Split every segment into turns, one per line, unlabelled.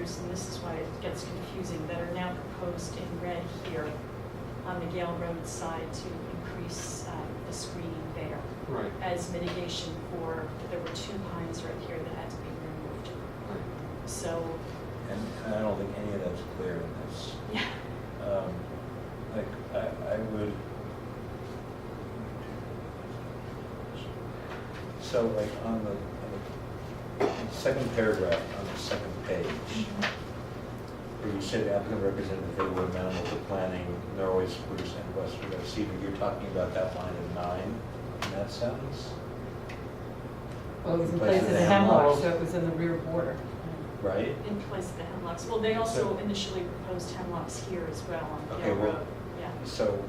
this is why it gets confusing, that are now proposed in red here on the Gale Road side to increase um, the screening there
Right,
as mitigation for, there were two pines right here that had to be removed.
right.
So,
And and I don't think any of that's clear in this.
yeah,
Um, Like, I, I would. So like on the, on the second paragraph, on the second page, where you said applicant representative, they were amenable to planning, Norway spruce and western red cedar, you're talking about that line of nine in that sentence?
Well, it was in
Place
place of
of
the
the hemlock.
hemlock, so it was in the rear border.
Right?
in place of the hemlocks. Well, they also initially proposed hemlocks here as well on
Okay,
Gale
well-
Road. Yeah,
So,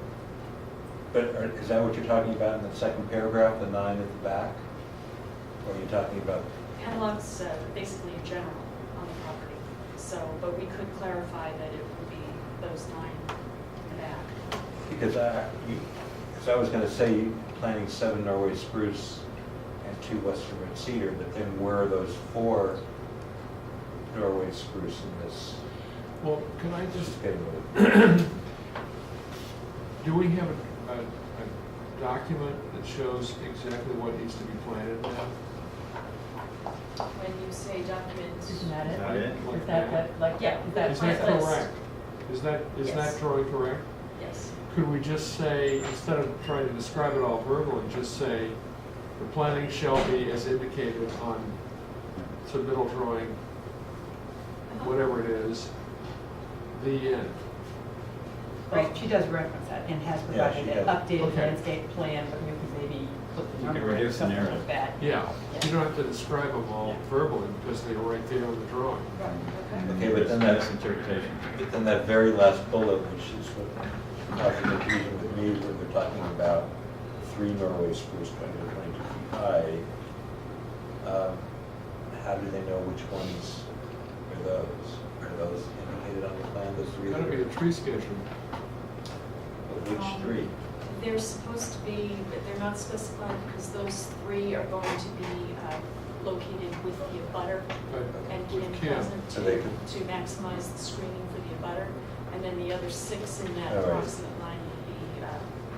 but are- is that what you're talking about in the second paragraph, the nine at the back? Or are you talking about,
hemlocks uh, basically in general on the property. So, but we could clarify that it would be those nine in the back.
because I, you, because I was gonna say you planting seven Norway spruce and two western red cedar, but then where are those four Norway spruce in this
Well, can I just,
schedule?
do we have a, a, a document that shows exactly what needs to be planted now?
When you say documents.
Isn't that
Is that
it?
it?
Is that what, like,
Yeah.
is that
Is that
plant list.
correct? Is that, is that
Yes.
drawing correct?
Yes.
Could we just say, instead of trying to describe it all verbally, just say, the planting shall be as indicated on submittal drawing, whatever it is, the end.
Right, she does reference that and has
Yeah, she
provided an
does.
updated
Okay.
landscape plan, but you could maybe put the
You can
number in or
reduce the
something
narrative.
like that.
Yeah, you don't have to describe them all verbally because they were right there on the drawing.
Okay, but then
That's
that's,
interpretation.
but then that very last bullet, which is what caused the confusion with me, where they're talking about three Norway spruce twenty to twenty-two feet high. um, How do they know which ones are those? Are those indicated on the plan, those three?
Gotta
that
be
are-
the tree schedule.
but Which three?
They're supposed to be, but they're not specified because those three are going to be uh, located with the abutter
but
and
we
Kim
can't.
Pleasant to
So they could-
to maximize the screening for the abutter. And then the other six in that
All right.
approximate line would be, uh,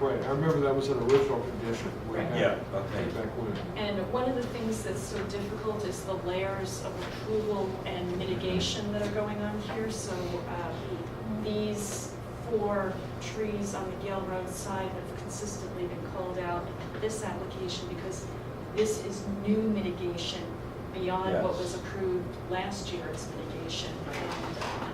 Right, I remember that was an original condition. we
Right.
had
Yeah, okay.
way Back when.
and one of the things that's so difficult is the layers of approval and mitigation that are going on here. So uh, these four trees on the Gale Road side have consistently been called out in this application because this is new mitigation beyond what
Yes.
was approved last year's mitigation. And, uh,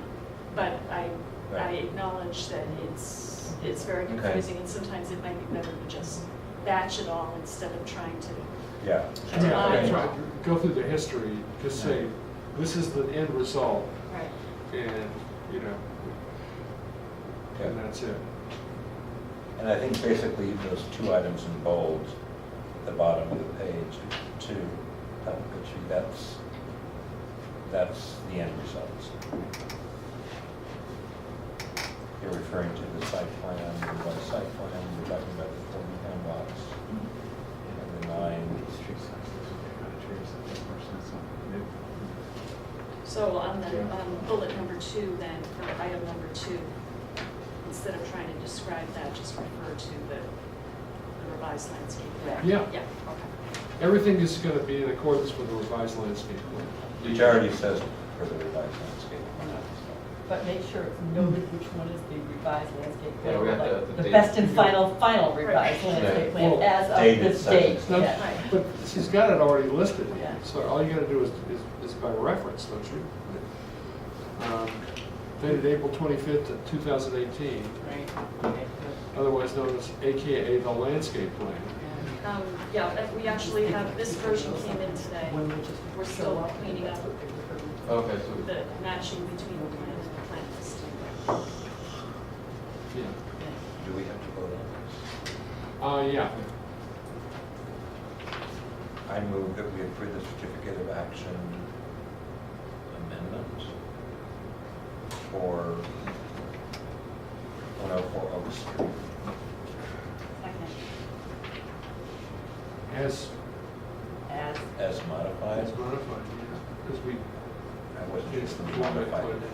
But I, I
Right.
acknowledge that it's, it's very
Okay.
confusing and sometimes it might be better to just batch it all instead of trying to
Yeah.
Yeah,
Yeah,
I-
that's right. Go through the history, just say, this is the end result,
Right,
and, you know, and
Yeah.
that's it.
And I think basically those two items in bold, the bottom of the page, two, that would get you- that's, that's the end results. You're referring to the site plan, the one site plan, we're talking about the forty hemlocks, and the nine.
so on the,
Yeah.
on bullet number two then, for item number two, instead of trying to describe that, just refer to the the revised landscape plan.
Yeah.
Yeah, okay.
Everything is gonna be in accordance with the revised landscape plan.
Which already says for the revised landscape plan.
But make sure it's noted which one is the revised landscape plan.
Yeah, we have to have
like
the
The
date.
best and final, final revised
Right.
landscape
Yeah.
plan
Well,
as of
dated
this
such and
date.
such.
No,
Yeah.
Right.
But she's got it already listed,
Yeah.
so all you gotta do is, is, is by reference, don't you? Um, Dated April twenty-fifth, two thousand eighteen,
Right, okay,
otherwise known as AKA the landscape plan.
good.
Um, yeah, that- we actually have, this version came in today.
When we just
We're
show
still
up and
cleaning
that's
up.
what they're referring to.
Okay, so,
The matching between the plan and the plan listing.
Yeah.
Do we have to vote on
Uh, yeah,
this? I move that we approve the certificate of action amendment for 104 Oak Street.
Second.
as
As
As modified,
As modified, yeah, because we,
I wasn't
is the format plan.